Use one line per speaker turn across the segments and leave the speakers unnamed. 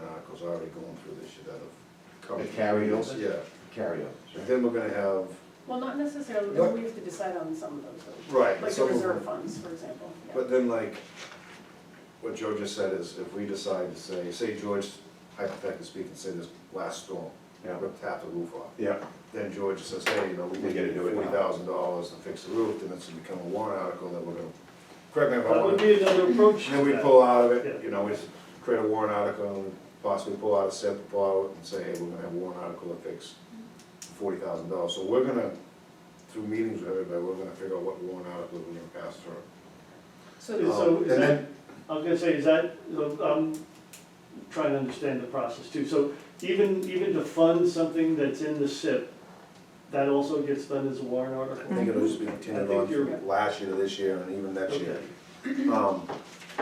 they going through this shit out of? coverage?
The carryover?
Yeah,
carryover.
and then we're gonna have,
Well, not necessarily,
What?
we have to decide on some of those, though.
right, but
like the
some of
reserve
them,
funds, for example. yeah.
but then like, what Joe just said is, if we decide to say, say George, hypothetically speaking, say this last storm,
Yeah.
ripped half the roof off,
Yeah,
then George says, hey, you know, we
We gotta
need
do it now.
forty thousand dollars to fix the roof, then it's gonna become a warrant article that we're gonna, correct me if I'm
That
wrong.
would be another approach.
And then we pull out of it, you know, we just create a warrant article, and possibly pull out a separate pull out and say, hey, we're gonna have a warrant article that fix forty thousand dollars, so we're gonna, through meetings with everybody, we're gonna figure out what warrant article we're gonna pass through.
Yeah,
So,
so
Um,
is
and
that-
then-
I was gonna say, is that, so I'm trying to understand the process too. So even, even to fund something that's in the SIP, that also gets done as a warrant
I
article?
think it'll just be continued
Mhm. I
on
think you're-
from last year to this year and even next year. Um,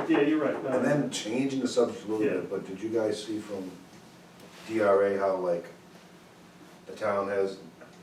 Yeah, you're right. No,
and then changing the subject a little
Yeah.
bit, but did you guys see from DRA how like the town has,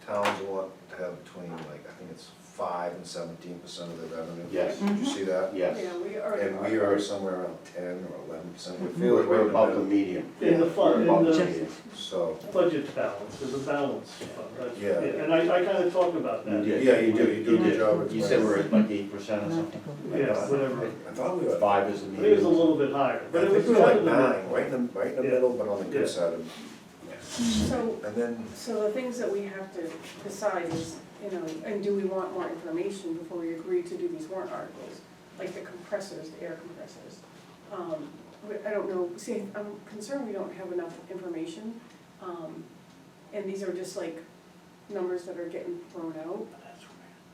towns want to have between like, I think it's five and seventeen percent of their revenue?
Yes.
Mm-hmm.
Did you
Mm-hmm.
see that?
yes.
yeah, we already
And we
are,
are somewhere around ten or eleven percent, we feel
We're
like we're
we're above the
about
median.
In the fund,
We're
in
above the
the-
median.
so.
Budget balance, there's a balance fund. that's-
Yeah.
And I, I kinda talked about that.
did.
Yeah, you do, you do a good job of
You said we're
explaining.
at like eight percent or something?
Mm-hmm. Yeah, whatever.
I thought we were, I
Five is the
I
median.
think it was a little bit higher, but it
think
was.
we were like
kind of the-
nine, right in the, right in the
Yeah.
middle, but on the
Yeah.
good side of,
so
and then,
So the things that we have to decide is, you know, and do we want more information before we agree to do these warrant articles? Like the compressors, the air compressors. Um, we- I don't know, see, I'm concerned we don't have enough information. Um, and these are just like numbers that are getting thrown out.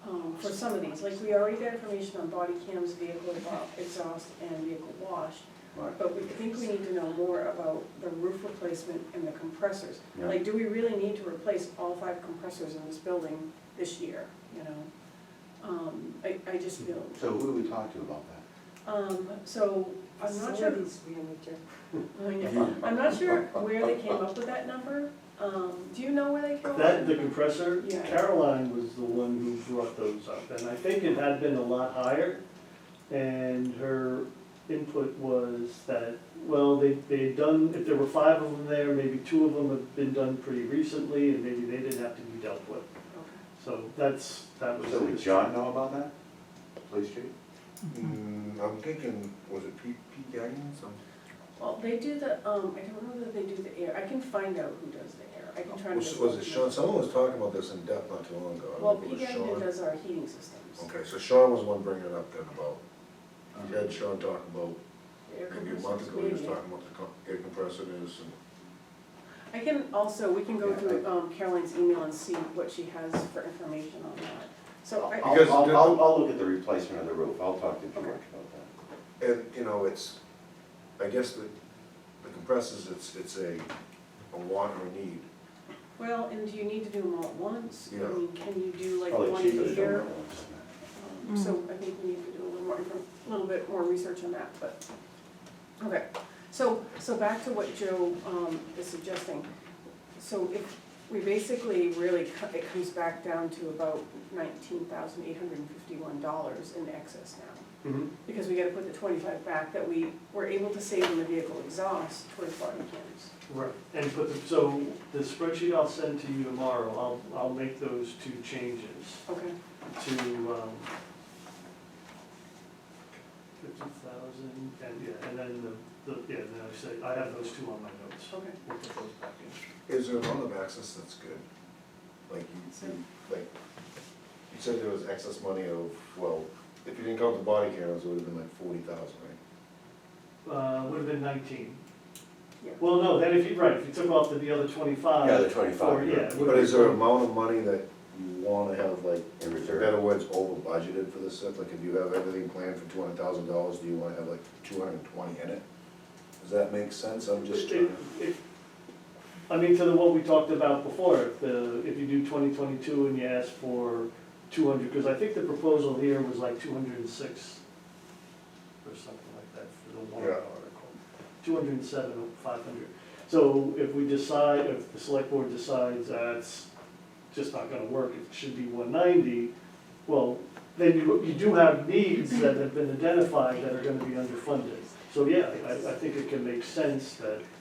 Um, for some of these, like we already got information on body cams, vehicle exhaust and vehicle wash.
Right.
But we think we need to know more about the roof replacement and the compressors.
Yeah.
Like, do we really need to replace all five compressors in this building this year, you know? Um, I, I just
Hmm.
feel,
So who do we talk to about that?
um, so, I'm not sure, I know. I'm not sure where they came up with that number. Um, do you know where they came up?
That, the
with
compressor,
Yeah.
Caroline was the one who brought those up, and I think it had been a lot higher. And her input was that, well, they, they had done, if there were five of them there, maybe two of them have been done pretty recently, and maybe they didn't have to be dealt with. So that's, that was.
So would John know about that? Police chief?
mm, I'm thinking, was it Pete, Pete Gagnon, some?
Well, they do the, um, I don't know that they do the air, I can find out who does the air, I can try to.
Was was it Sean, someone was talking about this in depth not too long ago, I
Well,
don't know if it was
Pegan
Sean.
does our heating systems.
Okay, so Sean was the one bringing it up then about, you had Sean talk about,
Air
maybe a month
compressors,
ago, he was
maybe.
talking about the co- air compressor is and
I can also, we can go
Yeah,
through um, Caroline's email and see what she has for information on that. So I,
I'll,
Because
I'll,
the-
I'll- I'll look at the replacement of the roof, I'll talk to George about that.
And, you know, it's, I guess the, the compressors, it's, it's a, a want or a need.
well, and do you need to do them all at once? I
Yeah.
mean, can you do like
Probably
one
cheaper to
a
do it
year?
all at once than
Um, So I think we need to do a little more, info- a little bit more research on that, but, okay. So, so back to what Joe um, is suggesting. So if, we basically really, co- it comes back down to about nineteen thousand eight hundred and fifty-one dollars in excess now.
Mhm.
because we gotta put the twenty-five back that we were able to save in the vehicle exhaust towards body cams.
Right, and put, the- so the spreadsheet I'll send to you tomorrow, I'll, I'll make those two changes.
Okay.
to, um, fifty thousand, and, yeah, and then the, the, yeah, then I say, I have those two on my notes.
Okay.
We'll put those back in.
Is there a lot of access that's good? Like, you, you, like, you said there was excess money of, well, if you didn't count the body cameras, it would have been like forty thousand, right?
Uh, would have been nineteen.
Yeah.
Well, no, then if you, right, if you took off the, the other twenty-five.
Yeah, the 25,
or- Yeah.
yeah.
it would've
But is
been-
there an amount of money that you wanna have, like,
In
in
reserve.
better words, over budgeted for this stuff? Like, if you have everything planned for two hundred thousand dollars, do you wanna have like two hundred and twenty in it? Does that make sense? I'm just trying
It-
to.
it- I mean, to the, what we talked about before, if the, if you do twenty twenty-two and you ask for two hundred, because I think the proposal here was like two hundred and six or something like that for the warrant
Yeah.
article. Two hundred and seven, five hundred. So if we decide, if the select board decides that's just not gonna work, it should be one ninety, well, then you, you do have needs that have been identified that are gonna be underfunded. So yeah, I, I think it can make sense that